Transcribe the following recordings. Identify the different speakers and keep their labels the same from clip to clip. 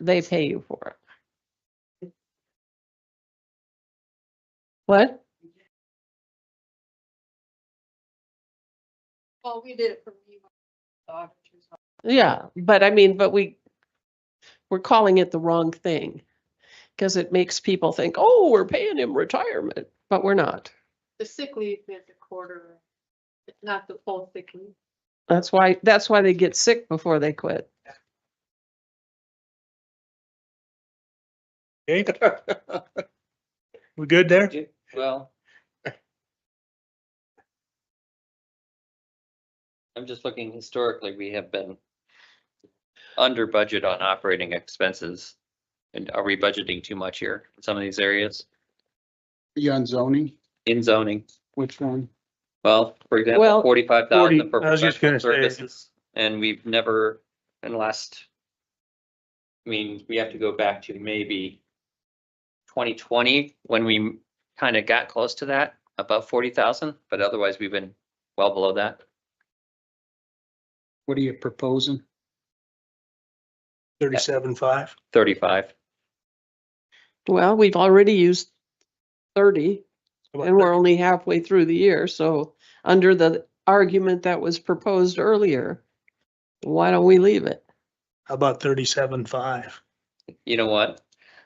Speaker 1: they pay you for it. What?
Speaker 2: Well, we did it for me. the auditor's office.
Speaker 1: Yeah, but I mean, but we, we're calling it the wrong thing. Because it makes people think, oh, we're paying him retirement, but we're not.
Speaker 2: The sick leave is a quarter, it's not the full sick leave.
Speaker 1: That's why, that's why they get sick before they quit.
Speaker 3: Okay, we good there?
Speaker 4: Well. I'm just looking historically, we have been under budget on operating expenses. And are we budgeting too much here in some of these areas
Speaker 5: Be on zoning,
Speaker 4: in zoning?
Speaker 5: which one?
Speaker 4: Well, for
Speaker 1: Well,
Speaker 4: example, forty-five thousand
Speaker 3: 40
Speaker 4: for
Speaker 3: I was just
Speaker 4: professional
Speaker 3: gonna say.
Speaker 4: services, and we've never, in the last. I mean, we have to go back to maybe twenty twenty, when we kind of got close to that, above forty thousand, but otherwise we've been well below that.
Speaker 5: What are you proposing?
Speaker 3: Thirty-seven, five.
Speaker 4: Thirty-five,
Speaker 1: Well, we've already used thirty and we're only halfway through the year, so under the argument that was proposed earlier, why don't we leave it?
Speaker 3: How about thirty-seven, five?
Speaker 4: you know what?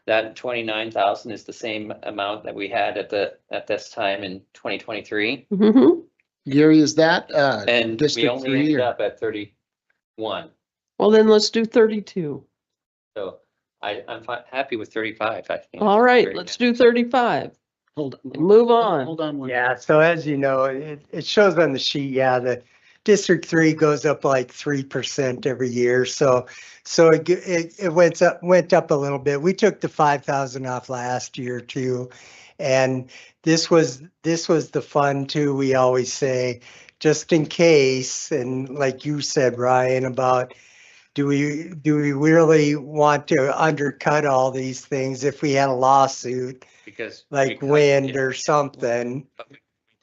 Speaker 4: That twenty-nine thousand is the same amount that we had at the, at this time in twenty twenty-three.
Speaker 1: Mhm.
Speaker 5: Gary, is that, uh,
Speaker 4: And we
Speaker 5: District
Speaker 4: only
Speaker 5: three
Speaker 4: ended
Speaker 5: or-
Speaker 4: up at thirty-one.
Speaker 1: Well, then let's do thirty-two.
Speaker 4: So I, I'm fi- happy with thirty-five, I think.
Speaker 1: All right,
Speaker 4: Very
Speaker 1: let's
Speaker 4: good.
Speaker 1: do thirty-five
Speaker 5: hold
Speaker 1: and
Speaker 5: on.
Speaker 1: move on.
Speaker 5: Hold on one.
Speaker 6: Yeah, so as you know, it, it shows on the sheet, yeah, the District Three goes up like three percent every year, so, so it, g- it, it went up, went up a little bit. We took the five thousand off last year too. And this was, this was the fund too, we always say, just in case, and like you said, Ryan, about do we, do we really want to undercut all these things if we had a lawsuit,
Speaker 4: Because. we
Speaker 6: like
Speaker 4: cut-
Speaker 6: wind
Speaker 4: yeah,
Speaker 6: or something?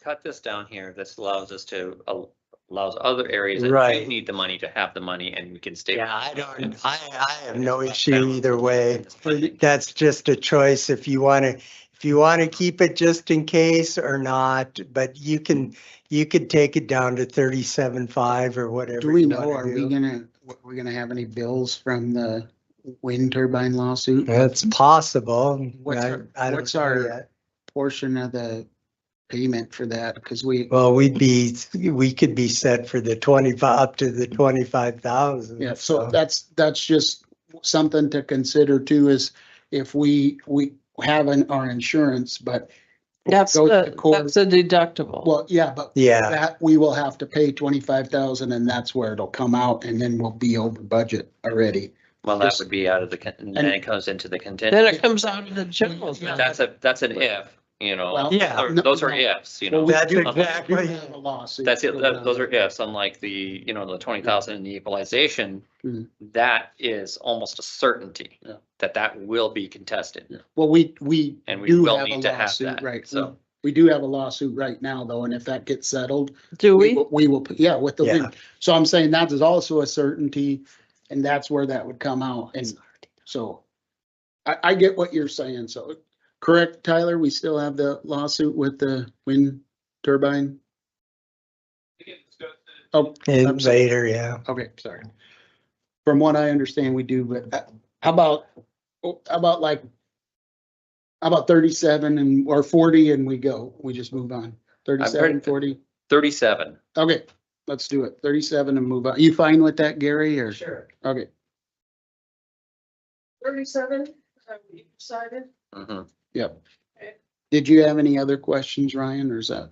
Speaker 4: Cut this down here, this allows us to, al- allows other areas that do
Speaker 6: Right.
Speaker 4: need the money to have the money and we can stay.
Speaker 6: Yeah, I don't, I, I have
Speaker 4: It's
Speaker 6: no
Speaker 4: about
Speaker 6: issue
Speaker 4: balance.
Speaker 6: either way. That's just a choice if you want to, if you want to keep it just in case or not, but you can, you could take it down to thirty-seven five or whatever.
Speaker 5: Do we
Speaker 6: you
Speaker 5: know,
Speaker 6: wanna
Speaker 5: are we
Speaker 6: do.
Speaker 5: gonna, what, we're gonna have any bills from the wind turbine lawsuit?
Speaker 6: That's possible.
Speaker 5: What's
Speaker 6: I-
Speaker 5: our-
Speaker 6: I don't
Speaker 5: what's
Speaker 6: know
Speaker 5: our-
Speaker 6: yet.
Speaker 5: Portion of the payment for that, because we,
Speaker 6: Well, we'd be, we could be set for the twenty-five, up to the twenty-five thousand.
Speaker 5: yeah, so that's, that's just something to consider too, is if we, we have an, our insurance, but,
Speaker 1: That's
Speaker 5: Go to
Speaker 1: the,
Speaker 5: court.
Speaker 1: that's a deductible.
Speaker 5: well, yeah, but
Speaker 6: Yeah,
Speaker 5: that, we will have to pay twenty-five thousand and that's where it'll come out and then we'll be over budget already.
Speaker 4: Well, that
Speaker 5: Just-
Speaker 4: would be out of the, con- and then it comes into the
Speaker 1: Then
Speaker 4: contingent.
Speaker 1: it comes out of the general.
Speaker 4: But That's a, that's an if, you know,
Speaker 5: Well,
Speaker 6: yeah.
Speaker 4: or
Speaker 5: no,
Speaker 4: those are
Speaker 5: no.
Speaker 4: ifs, you
Speaker 5: Well,
Speaker 4: know.
Speaker 5: we
Speaker 6: That's
Speaker 5: do- we do
Speaker 6: exactly-
Speaker 5: have a lawsuit
Speaker 4: That's it, that- those are
Speaker 5: going
Speaker 4: ifs, unlike the, you know, the twenty thousand in the equalization.
Speaker 5: Mhm.
Speaker 4: That is almost a certainty
Speaker 5: Yeah.
Speaker 4: that that will be contested
Speaker 5: on. Well, we, we
Speaker 4: and we
Speaker 5: do
Speaker 4: will
Speaker 5: have a
Speaker 4: need to have
Speaker 5: lawsuit,
Speaker 4: that,
Speaker 5: right?
Speaker 4: so.
Speaker 5: We do have a lawsuit right now though, and if that gets settled,
Speaker 1: Do
Speaker 5: we
Speaker 1: we?
Speaker 5: will, we will, yeah, with the
Speaker 6: Yeah.
Speaker 5: wind. So I'm saying that is also a certainty and that's where that would come out. And so I, I get what you're saying. So correct, Tyler, we still have the lawsuit with the wind turbine? Oh,
Speaker 6: and
Speaker 5: I'm sorry.
Speaker 6: later, yeah.
Speaker 5: Okay, sorry. From what I understand, we do, but uh, how about, oh, how about like, how about thirty-seven and, or forty and we go, we just move on? Thirty-seven, forty,
Speaker 4: Thirty-seven,
Speaker 5: okay, let's do it, thirty-seven and move on. You fine with that, Gary, or?
Speaker 2: Sure.
Speaker 5: Okay,
Speaker 2: Thirty-seven, is that what you decided?
Speaker 4: hmm
Speaker 5: yep. Did you have any other questions, Ryan, or is that?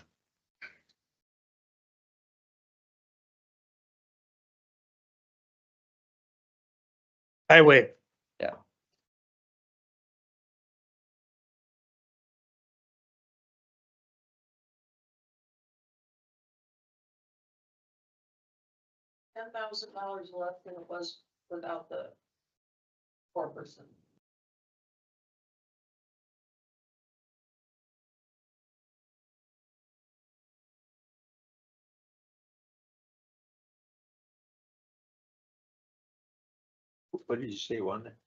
Speaker 3: Highway.
Speaker 4: Yeah.
Speaker 2: Ten thousand dollars less than it was without the four percent.
Speaker 7: What did you say, one?